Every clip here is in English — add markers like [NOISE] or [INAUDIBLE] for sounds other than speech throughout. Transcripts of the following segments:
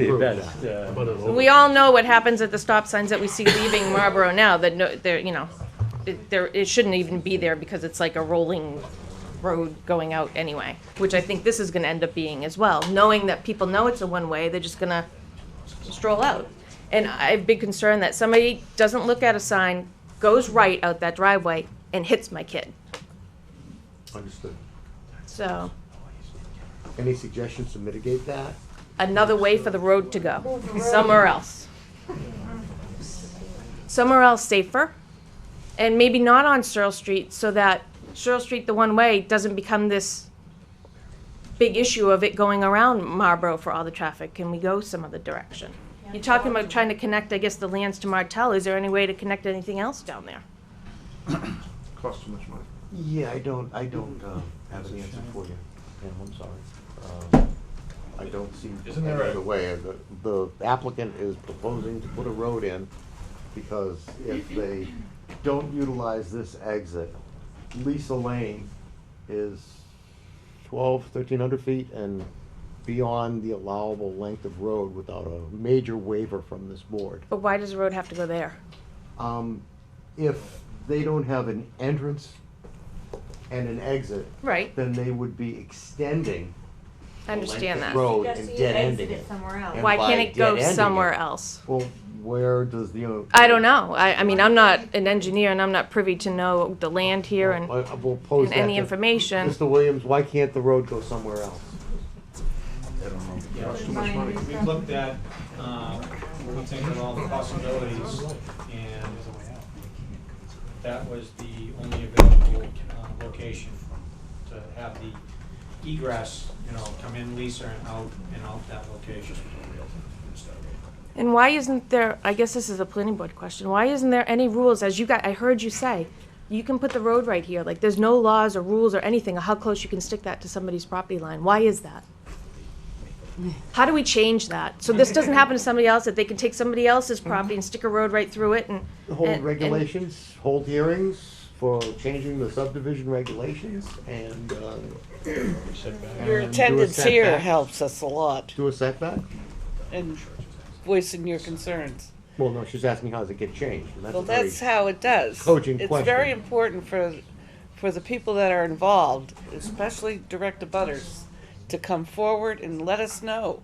the approved. best, uh, But it'll- We all know what happens at the stop signs that we see leaving Marlboro now, that no, there, you know, it, there, it shouldn't even be there because it's like a rolling road going out anyway, which I think this is gonna end up being as well, knowing that people know it's a one-way, they're just gonna stroll out. And I have big concern that somebody doesn't look at a sign, goes right out that driveway and hits my kid, Understood. so, Any suggestions to mitigate that? another way for the road to go, somewhere else. Somewhere else safer, and maybe not on Searle Street, so that Searle Street, the one-way, doesn't become this big issue of it going around Marlboro for all the traffic. Can we go some other direction? You're talking about trying to connect, I guess, the lands to Martell. Is there any way to connect anything else down there? Costs too much money. Yeah, I don't, I don't uh, have an answer for you. Yeah, I'm sorry. Um, I don't see Isn't any there a- other way. The- The applicant is proposing to put a road in because if they don't utilize this exit, Lisa Lane is twelve, thirteen hundred feet and beyond the allowable length of road without a major waiver from this board. But why does the road have to go there? Um, if they don't have an entrance and an exit, Right, then they would be extending I understand that. road Just and so you dead ending exit it. it somewhere else. And Why by can't it go dead-ending it- somewhere else? Well, where does the? uh, I don't know. I, I mean, I'm not an engineer and I'm not privy to know the land here and, Well, I- we'll pose and that any to- information. Mr. Williams, why can't the road go somewhere else? Costs too much money. We've looked at, um, looked into all the possibilities, and that was the only available, uh, location to have the egress, you know, come in Lisa and out, and out that location. And why isn't there, I guess this is a planning board question, why isn't there any rules, as you got, I heard you say, you can put the road right here, like, there's no laws or rules or anything, of how close you can stick that to somebody's property line, why is that? How do we change that? So this doesn't happen to somebody else, that they can take somebody else's property and stick a road right through it and. and- Hold and- regulations, hold hearings for changing the subdivision regulations and, uh. Your and do a attendance here setback. helps us a lot Do a setback? in voicing your concerns. Well, no, she's asking how does it get changed, and that's Well, a very- that's how it does. cogent It's very question. important for, for the people that are involved, especially direct abutters, to come forward and let us know.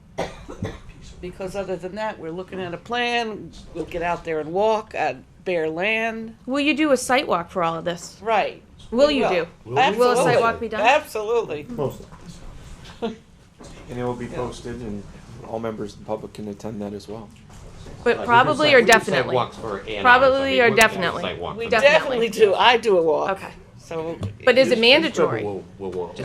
Because other than that, we're looking at a plan, we'll get out there and walk on bare land. Will you do a site walk for all of this? Right. Will We you do? Will we? Will a site Absolutely. walk be done? Absolutely. Mostly. And it will be posted and all members of the public can attend that as well. But probably or definitely? Probably or definitely? We Definitely. definitely do. I do a walk. Okay. So. But is it mandatory? We'll, we'll walk.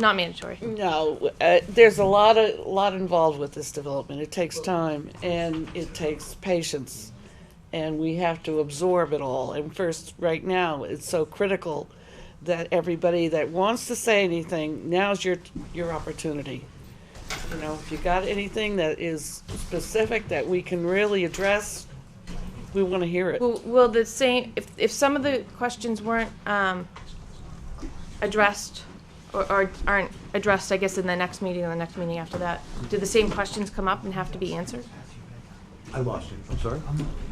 Not mandatory. No, uh, there's a lot of lot involved with this development. It takes time and it takes patience, and we have to absorb it all. And first, right now, it's so critical that everybody that wants to say anything, now's your your opportunity. You know, if you got anything that is specific that we can really address, we want to hear it. Will, will the same, if, if some of the questions weren't, um, addressed, or, or aren't addressed, I guess, in the next meeting or the next meeting after that, do the same questions come up and have to be answered? I lost you, I'm sorry.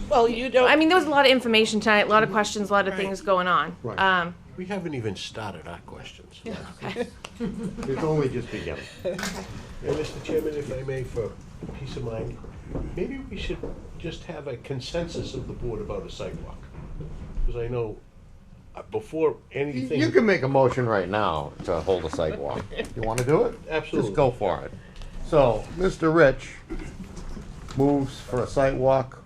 Well, you don't. I mean, there was a lot of information tonight, a lot of questions, a lot of things going on. Right. Um, We haven't even started our questions. It's only just beginning. And Mr. Chairman, if I may, for peace of mind, maybe we should just have a consensus of the board about a sidewalk. Because I know, uh, before anything. You can make a motion right now to hold a [LAUGHS] sidewalk. You want to do it? Absolutely. Just go for it. So, Mr. Rich moves for a sidewalk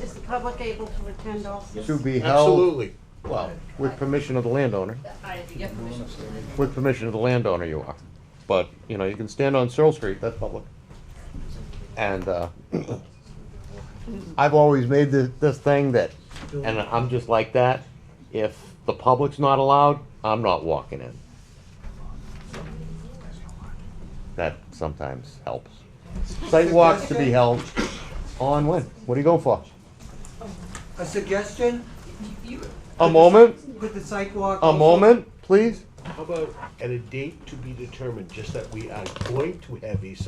Is the public able to attend also? to be held, Absolutely. well, with permission of the landowner. I have to get permission. With permission of the landowner, you are. But, you know, you can stand on Searle Street, that's public. And, uh, I've always made this, this thing that, and I'm just like that, if the public's not allowed, I'm not walking in. That sometimes helps. Site walks to be held on when? What do you go for? A suggestion? A moment, Put the sidewalk. a moment, please? How about at a date to be determined, just that we are going to have a sidewalk